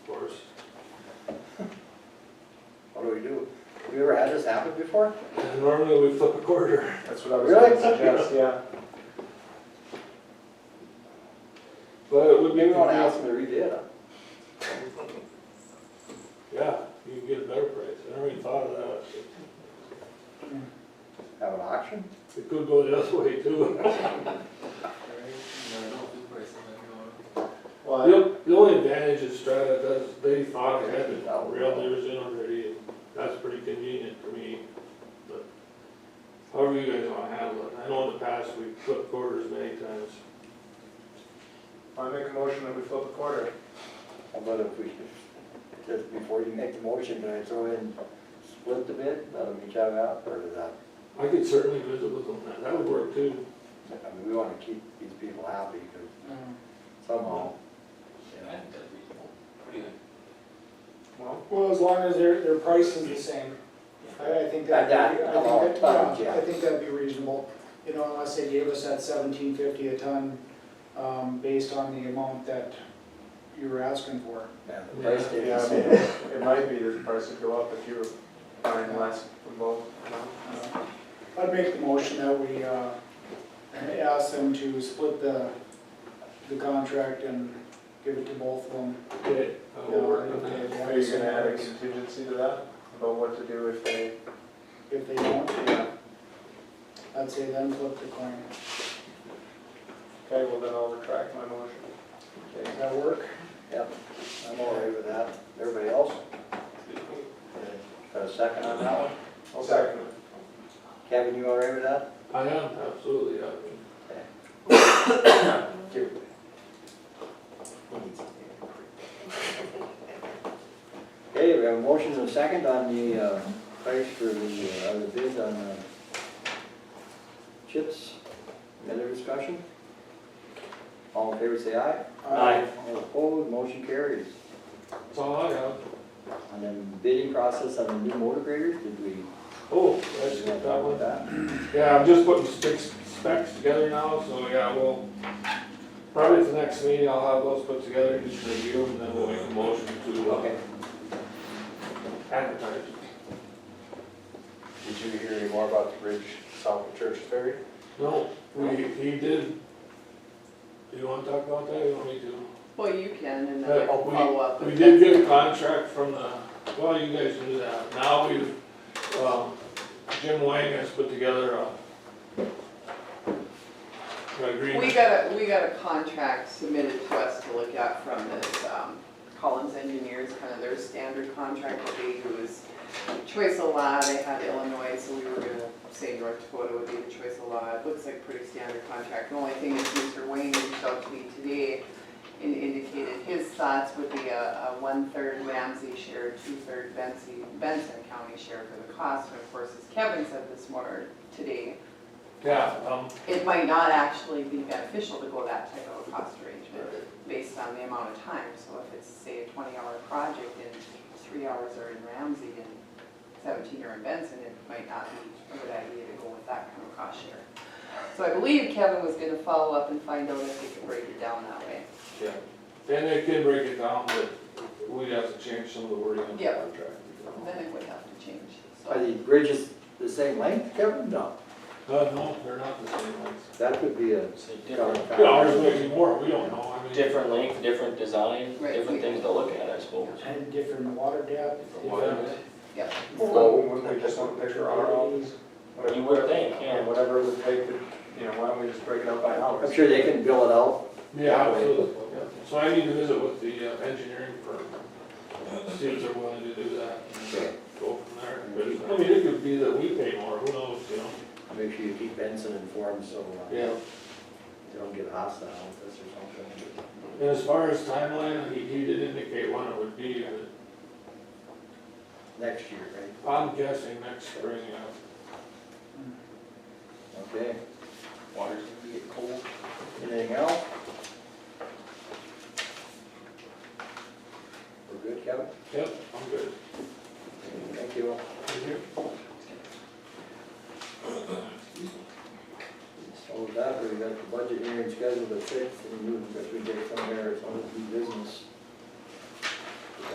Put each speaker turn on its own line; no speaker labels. we do. Have you ever had this happen before?
Normally we flip a quarter.
That's what I was gonna
Really?
suggest, yeah.
But it would be,
Maybe we wanna ask them to redo it.
yeah, you can get a better price. I never even thought of that.
Have an auction?
It could go the other way too.
Well, I-
The, the only advantage is Strata does, they thought they had the rail neighbors in already, and that's pretty convenient for me. But However you guys wanna handle it. I know in the past we flipped quarters many times.
I make a motion that we flip a quarter.
How about if we, just before you make the motion, can I throw in, split the bid, let them each have half, or is that?
I could certainly visit with them, that, that would work too.
I mean, we wanna keep these people happy, cause somehow, you know,
Well,
Well, as long as their, their price is the same, I, I think that, I think
That- that-
that,
yeah.
yeah, I think that'd be reasonable. You know, unless they gave us that seventeen fifty a ton, um, based on the amount that you were asking for.
and the price did
yeah, I mean, it might be that the price would go up if you were buying less from both. you know?
Uh, I'd make the motion that we, uh, ask them to split the, the contract and give it to both of them.
Okay. I will work on that.
Are you gonna add a contingency to that about what to do if they?
If they don't, yeah. I'd say then flip the coin.
Okay, well then I'll retract my motion. Okay.
Does that work?
Yep, I'm all right with that. Everybody else? Got a second on that one?
I'll second it.
Kevin, you all right with that?
I am, absolutely, yeah.
Okay, we have a motion and a second on the uh, price for the, uh, the bid on uh, chips. Any other discussion? All in favor, say aye.
Aye.
All opposed, motion carries.
That's all I have.
And then bidding process on the new motor graders, did we?
Oh, that's
did we
good,
talk
that
about
one.
that?
Yeah, I'm just putting specs, specs together now, so yeah, we'll, probably at the next meeting, I'll have those put together, just review, and then we'll make a motion to uh,
Okay.
advertise.
Did you hear any more about the bridge south of Church Ferry?
No, we, he did, do you wanna talk about that, or you want me to?
Well, you can, and
Uh,
then I can
we-
follow up.
We
with
did
that.
get a contract from the, well, you guys knew that, now we, um, Jim Wang has put together a an agreement.
We got a, we got a contract submitted to us to look at from this, um, Collins Engineers, kind of their standard contract that they use. Choice of law, they had Illinois, so we were gonna say North Dakota would be the choice of law, it looks like pretty standard contract. The only thing is Mr. Wayne reached out to me today and indicated his thoughts would be a, a one-third Ramsey share, two-third Benson, Benson County share for the cost, and of course, as Kevin said this morning, today,
Yeah, um,
it might not actually be beneficial to go that type of a cost arrangement based on the amount of time. So if it's, say, a twenty-hour project and three hours are in Ramsey and seventeen are in Benson, it might not be a good idea to go with that kind of cost share. So I believe Kevin was gonna follow up and find out if we could break it down that way.
Yeah, and they can break it down, but we'd have to change some of the wording in the
Yeah.
contract.
Then it would have to change,
Are
so.
the bridges the same length, Kevin? No.
Uh, no, they're not the same ones.
That could be a.
So different,
Yeah, ours might be more, we don't know, I mean.
different length, different design,
Right.
different things to look at, I suppose.
And different water depth.
Yeah.
Yep.
Well, wouldn't we just want to picture our hours?
You would think, yeah.
And whatever it would take to, you know, why don't we just break it up by hours?
I'm sure they can bill it out.
Yeah, absolutely. yeah. So I need to visit with the uh, engineering firm, see if they're willing to do that, and go from there. But, I mean, it could be that we pay more, who knows, you know?
Make sure you keep Benson informed so uh,
Yeah.
they don't get hostile with this or something.
And as far as timeline, he, he did indicate when it would be, but
Next year, right?
I'm guessing next spring, yeah.
Okay.
Water's gonna get cold.
Anything else? We're good, Kevin?
Yep, I'm good.
Thank you.
Thank you.
So with that, we got the budget hearing scheduled at six and we, if we get somewhere, it's only due business.